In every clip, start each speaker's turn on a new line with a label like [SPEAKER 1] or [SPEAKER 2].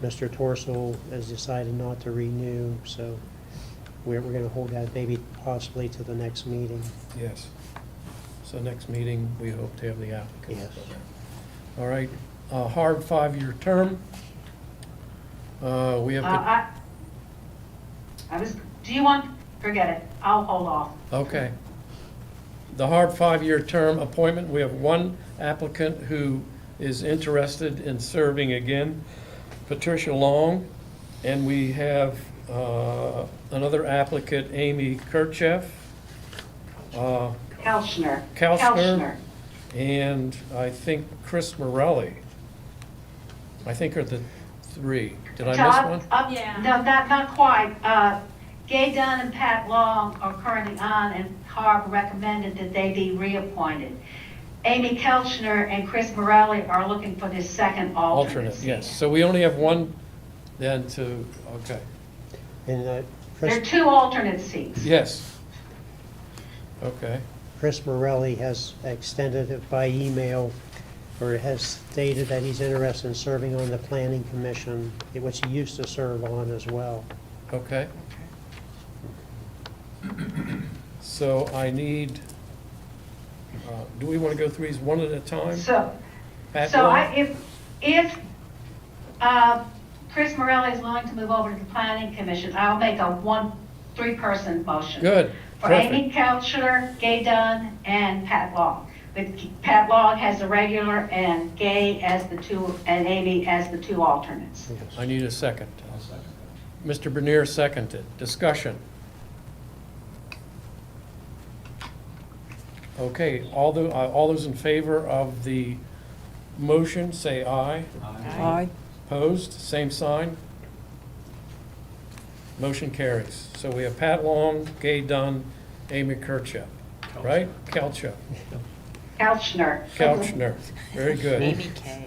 [SPEAKER 1] Mr. Torsil has decided not to renew, so we're, we're gonna hold that maybe possibly to the next meeting.
[SPEAKER 2] Yes. So next meeting, we hope to have the applicants.
[SPEAKER 1] Yes.
[SPEAKER 2] All right, a hard five-year term. Uh, We have,
[SPEAKER 3] Uh,
[SPEAKER 2] to-
[SPEAKER 3] I, I was, do you want, forget it, I'll hold off.
[SPEAKER 2] okay. The hard five-year term appointment, we have one applicant who is interested in serving again, Patricia Long. And we have uh, another applicant, Amy Kirchhoff. Uh
[SPEAKER 3] Kelchner.
[SPEAKER 2] Kelchner. And I think Chris Morelli. I think are the three. Did I
[SPEAKER 3] Todd,
[SPEAKER 2] miss one?
[SPEAKER 3] up-
[SPEAKER 4] Yeah.
[SPEAKER 3] No, not, not quite. Uh, Gay Dunn and Pat Long are currently on, and Carb recommended that they be reappointed. Amy Kelchner and Chris Morelli are looking for this second alternate.
[SPEAKER 2] Alternate, yes. So we only have one then to, okay,
[SPEAKER 1] And uh,
[SPEAKER 3] There are
[SPEAKER 1] Chris,
[SPEAKER 3] two alternate seats.
[SPEAKER 2] yes. Okay,
[SPEAKER 1] Chris Morelli has extended it by email, or has stated that he's interested in serving on the planning commission, which he used to serve on as well.
[SPEAKER 2] okay. So I need, uh, do we want to go through these one at a time?
[SPEAKER 3] So,
[SPEAKER 2] Pat
[SPEAKER 3] So I,
[SPEAKER 2] Long?
[SPEAKER 3] if, if, uh, Chris Morelli is willing to move over to the planning commission, I'll make a one, three-person motion.
[SPEAKER 2] Good,
[SPEAKER 3] For Amy
[SPEAKER 2] perfect.
[SPEAKER 3] Couchner, Gay Dunn, and Pat Long. With Pat Long as the regular and Gay as the two, and Amy as the two alternates.
[SPEAKER 2] I need a second. Mr. Bernier seconded. Discussion. Okay, all the, uh, all those in favor of the motion, say aye.
[SPEAKER 5] Aye.
[SPEAKER 2] Opposed, same sign. Motion carries. So we have Pat Long, Gay Dunn, Amy Kirchup, right? Kelchup,
[SPEAKER 3] Couchner.
[SPEAKER 2] Couchner, very good. Amy K.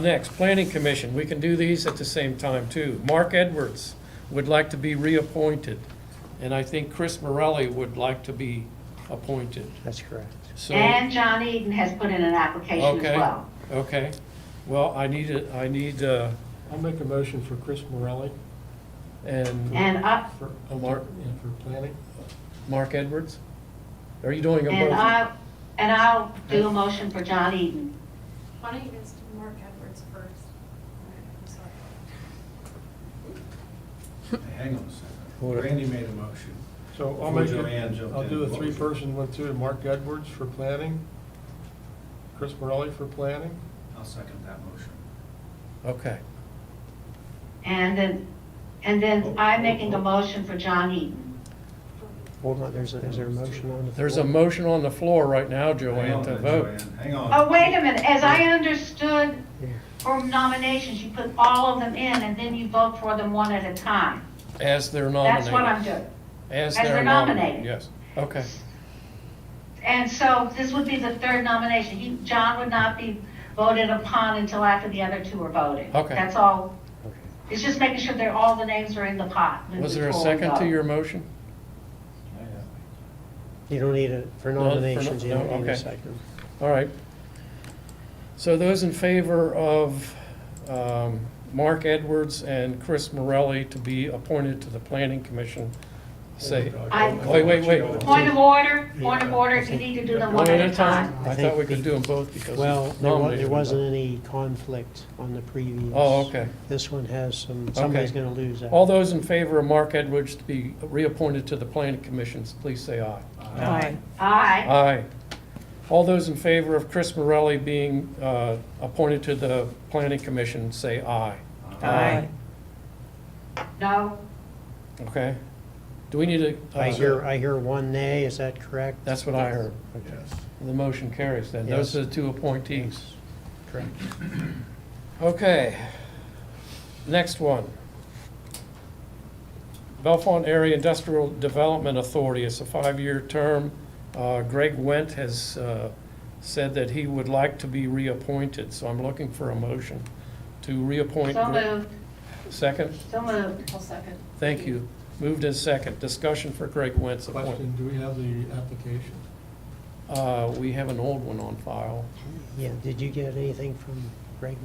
[SPEAKER 2] Next, Planning Commission. We can do these at the same time, too. Mark Edwards would like to be reappointed, and I think Chris Morelli would like to be appointed.
[SPEAKER 1] That's correct.
[SPEAKER 2] So.
[SPEAKER 3] And John Eden has put in an application
[SPEAKER 2] Okay.
[SPEAKER 3] as well.
[SPEAKER 2] Okay, well, I need, a- I need, uh,
[SPEAKER 5] I'll make a motion for Chris Morelli
[SPEAKER 2] and
[SPEAKER 3] And up,
[SPEAKER 5] for, uh,
[SPEAKER 2] Mark-
[SPEAKER 5] and for planning.
[SPEAKER 2] Mark Edwards? Are you doing them
[SPEAKER 3] and
[SPEAKER 2] both?
[SPEAKER 3] I, and I'll do a motion for John Eden.
[SPEAKER 4] Why don't you just do Mark Edwards first? I'm sorry.
[SPEAKER 6] Hang on a second.
[SPEAKER 1] Hold it.
[SPEAKER 6] Randy made a motion.
[SPEAKER 5] So I'll
[SPEAKER 6] Before
[SPEAKER 5] make
[SPEAKER 6] Joanne
[SPEAKER 5] it,
[SPEAKER 6] jumped
[SPEAKER 5] I'll
[SPEAKER 6] in,
[SPEAKER 5] do a
[SPEAKER 6] what was it?
[SPEAKER 5] three-person one, too, Mark Edwards for planning, Chris Morelli for planning,
[SPEAKER 6] I'll second that motion.
[SPEAKER 2] Okay,
[SPEAKER 3] And then, and
[SPEAKER 2] Oh,
[SPEAKER 3] then I'm making a motion for John Eaton.
[SPEAKER 1] Hold on, there's, a- is there a motion on the floor?
[SPEAKER 2] there's a motion on the floor right now,
[SPEAKER 6] Hang
[SPEAKER 2] Joanne,
[SPEAKER 6] on,
[SPEAKER 2] to
[SPEAKER 6] then,
[SPEAKER 2] vote.
[SPEAKER 6] Joanne. Hang on.
[SPEAKER 3] Oh, wait a minute, as I understood
[SPEAKER 1] Yeah.
[SPEAKER 3] for nominations, you put all of them in and then you vote for them one at a time.
[SPEAKER 2] As they're nominated.
[SPEAKER 3] That's what I'm doing.
[SPEAKER 2] As
[SPEAKER 3] as
[SPEAKER 2] they're
[SPEAKER 3] they're
[SPEAKER 2] nominated,
[SPEAKER 3] nominated.
[SPEAKER 2] yes, okay.
[SPEAKER 3] And so this would be the third nomination. He, John would not be voted upon until after the other two are voted.
[SPEAKER 2] Okay.
[SPEAKER 3] That's all.
[SPEAKER 1] Okay.
[SPEAKER 3] It's just making sure that all the names are in the pot.
[SPEAKER 2] Was there a
[SPEAKER 3] before we
[SPEAKER 2] second to
[SPEAKER 3] vote.
[SPEAKER 2] your motion?
[SPEAKER 1] You don't need it, for
[SPEAKER 2] No, for no-
[SPEAKER 1] nominations, you
[SPEAKER 2] no,
[SPEAKER 1] don't need
[SPEAKER 2] okay.
[SPEAKER 1] a second.
[SPEAKER 2] All right. So those in favor of um, Mark Edwards and Chris Morelli to be appointed to the Planning Commission, say,
[SPEAKER 3] I-
[SPEAKER 2] wait, wait, wait.
[SPEAKER 3] Point of order, point of
[SPEAKER 1] Yeah,
[SPEAKER 3] order,
[SPEAKER 1] I
[SPEAKER 3] you
[SPEAKER 1] think-
[SPEAKER 3] need to do them
[SPEAKER 2] One at a
[SPEAKER 3] time.
[SPEAKER 2] time? I thought we could do them both because.
[SPEAKER 1] Well, there wa-
[SPEAKER 2] nominated
[SPEAKER 1] there
[SPEAKER 2] them both.
[SPEAKER 1] wasn't any conflict on the previous.
[SPEAKER 2] Oh, okay.
[SPEAKER 1] This one has some, somebody's gonna lose that.
[SPEAKER 2] All those in favor of Mark Edwards to be reappointed to the planning commissions, please say aye.
[SPEAKER 5] Aye.
[SPEAKER 3] Aye.
[SPEAKER 2] Aye. All those in favor of Chris Morelli being uh, appointed to the planning commission, say aye.
[SPEAKER 5] Aye.
[SPEAKER 3] No.
[SPEAKER 2] Okay? Do we need to? uh,
[SPEAKER 1] I hear, I hear one nay, is that correct?
[SPEAKER 2] That's what I heard.
[SPEAKER 6] Yes.
[SPEAKER 2] The motion carries then. Those are the two appointees.
[SPEAKER 1] Correct.
[SPEAKER 2] Okay. Next one. Bellefonte Area Industrial Development Authority, it's a five-year term. Uh, Greg Wendt has uh, said that he would like to be reappointed, so I'm looking for a motion to reappoint.
[SPEAKER 3] So
[SPEAKER 2] Gre-
[SPEAKER 3] moved,
[SPEAKER 2] Second,
[SPEAKER 3] so moved.
[SPEAKER 4] I'll second.
[SPEAKER 2] thank you. Moved and second. Discussion for Greg Wendt's appointment.
[SPEAKER 5] Question, do we have the application?
[SPEAKER 2] Uh, We have an old one on file.
[SPEAKER 1] Yeah, did you get anything from Greg?